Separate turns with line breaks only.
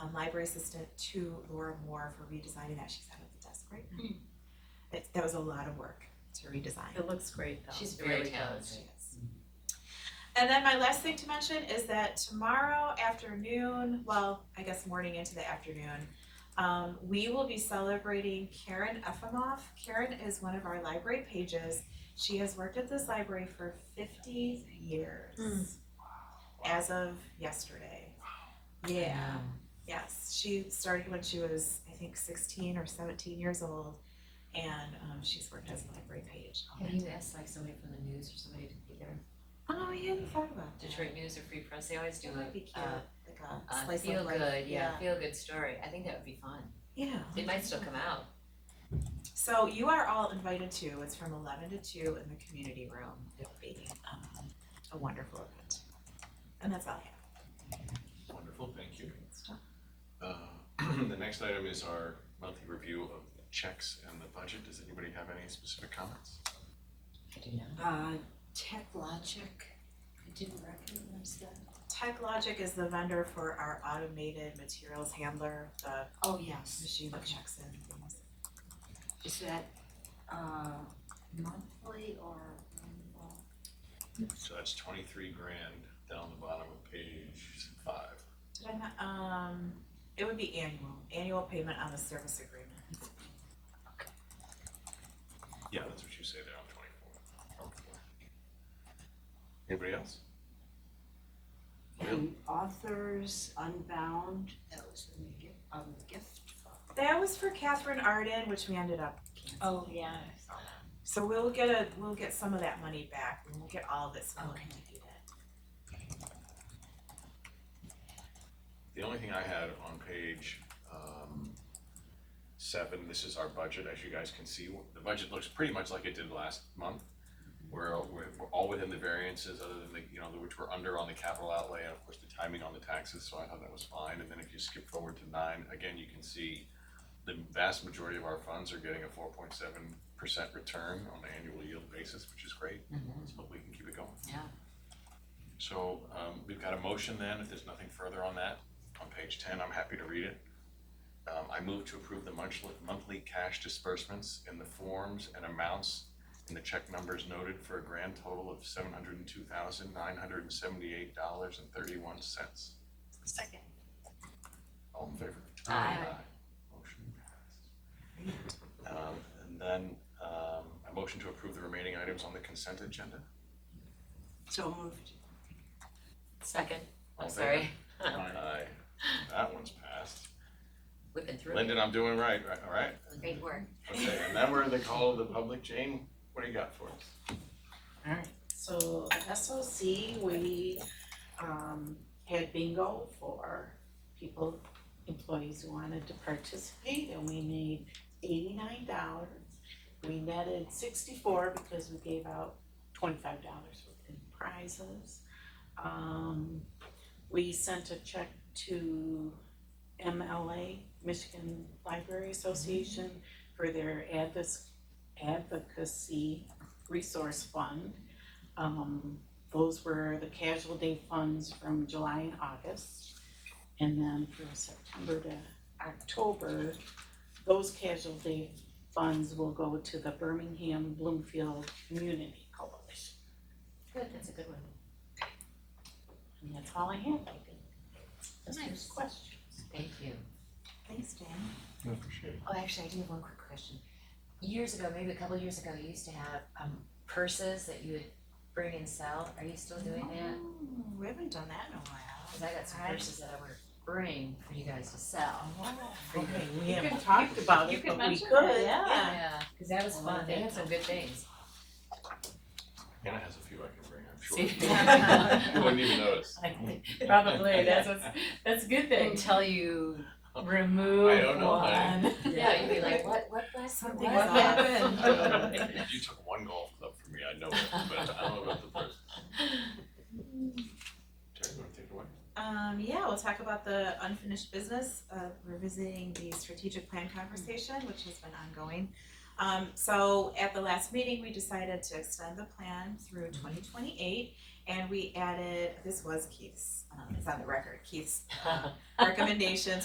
um, library assistant to Laura Moore for redesigning that. She's out of the desk right now. It, that was a lot of work to redesign.
It looks great though.
She's
It
very
really does.
talented.
She is. And then my last thing to mention is that tomorrow afternoon, well, I guess morning into the afternoon, um, we will be celebrating Karen Efimoff. Karen is one of our library pages. She has worked at this library for fifty years. As of yesterday. Yeah. Yes, she started when she was, I think, sixteen or seventeen years old, and um, she's worked as a library page. all
Have
that
you asked like somebody from the news or somebody to be there?
Oh, I hadn't thought about that.
Detroit News or Free Press, they always do
That might be
a,
cute,
uh,
like
a
a slice
feel
of life.
good, yeah, feel good story. I think that would be fun.
Yeah.
It might still come out.
So you are all invited to, it's from eleven to two in the community room. It'll be um a wonderful event. And that's all I have.
Wonderful, thank you.
Stuff.
Uh, The next item is our monthly review of checks and the budget. Does anybody have any specific comments?
I do not.
Uh, Tech Logic, I didn't recognize that.
TechLogic is the vendor for our automated materials handler, the
Oh, yes,
machine that checks in things.
is that, uh, monthly or annual?
So that's twenty-three grand down the bottom of page five.
Did I not, um, it would be annual, annual payment on the service agreement.
Yeah, that's what you say there on twenty-four. Anybody else? Yep.
And Authors Unbound, that was in the gift, um, gift.
That was for Catherine Arden, which we ended up canceling.
Oh, yeah.
So we'll get a, we'll get some of that money back, we won't get all of it, so we'll
Okay.
do that.
The only thing I had on page um seven, this is our budget, as you guys can see, the budget looks pretty much like it did last month. We're we're we're all within the variances other than the, you know, which we're under on the capital outlay and of course the timing on the taxes, so I thought that was fine. And then if you skip forward to nine, again, you can see the vast majority of our funds are getting a four point seven percent return on an annual yield basis, which is great. Let's hope we can keep it going.
Yeah.
So um we've got a motion then, if there's nothing further on that, on page ten, I'm happy to read it. Um I move to approve the monthly monthly cash disbursements in the forms and amounts and the check numbers noted for a grand total of seven hundred and two thousand nine hundred and seventy-eight dollars and thirty-one cents.
Second.
All in favor?
Aye.
Motion passed. Um, and then um a motion to approve the remaining items on the consent agenda.
So moved.
Second,
All
I'm
in
sorry.
favor? Aye. That one's passed.
Whipping through. it.
Lyndon, I'm doing right, right, all right?
Great work.
Okay, and then we're in the call of the public, Jane, what do you got for us?
So the SOC, we um had bingo for people, employees who wanted to participate and we made eighty-nine dollars. We netted sixty-four because we gave out twenty-five dollars in prizes. Um, we sent a check to MLA, Michigan Library Association for their advoc- advocacy resource fund. Um, those were the casual day funds from July and August. And then from September to October, those casual day funds will go to the Birmingham Bloomfield Community Coalition.
Good, that's a good one.
And that's all I have, I think. That's
Nice.
question.
Thank you.
Thanks, Dan.
Appreciate
Oh, actually, I do have one quick question. Years ago, maybe a couple years ago, you used to have um purses that you would bring and sell. Are you still doing that?
Ooh, We haven't done that in a while.
Cause I got some purses that I wanna bring for you guys to sell. For you.
Okay, we haven't talked about
you
it,
could
but we
mention
could,
it,
yeah.
Yeah, cause that was
Well,
fun. They
that-
had some good things.
it. Anna has a few I can bring, I'm
See?
sure. You wouldn't even notice.
Probably, that's what's, that's a good thing.
Until you,
I
Remove
don't know, I-
one.
yeah, you'd be like, what, what lesson,
Something
what
was off.
happened?
Uh, If you took one golf club from me, I know it, but I don't know about the person. Terry, you wanna take it away?
Um, yeah, we'll talk about the unfinished business, uh, we're visiting the strategic plan conversation, which has been ongoing. Um, so at the last meeting, we decided to extend the plan through
Mm-hmm.
twenty twenty-eight, and we added, this was Keith's, um, it's on the record, Keith's, uh, recommendations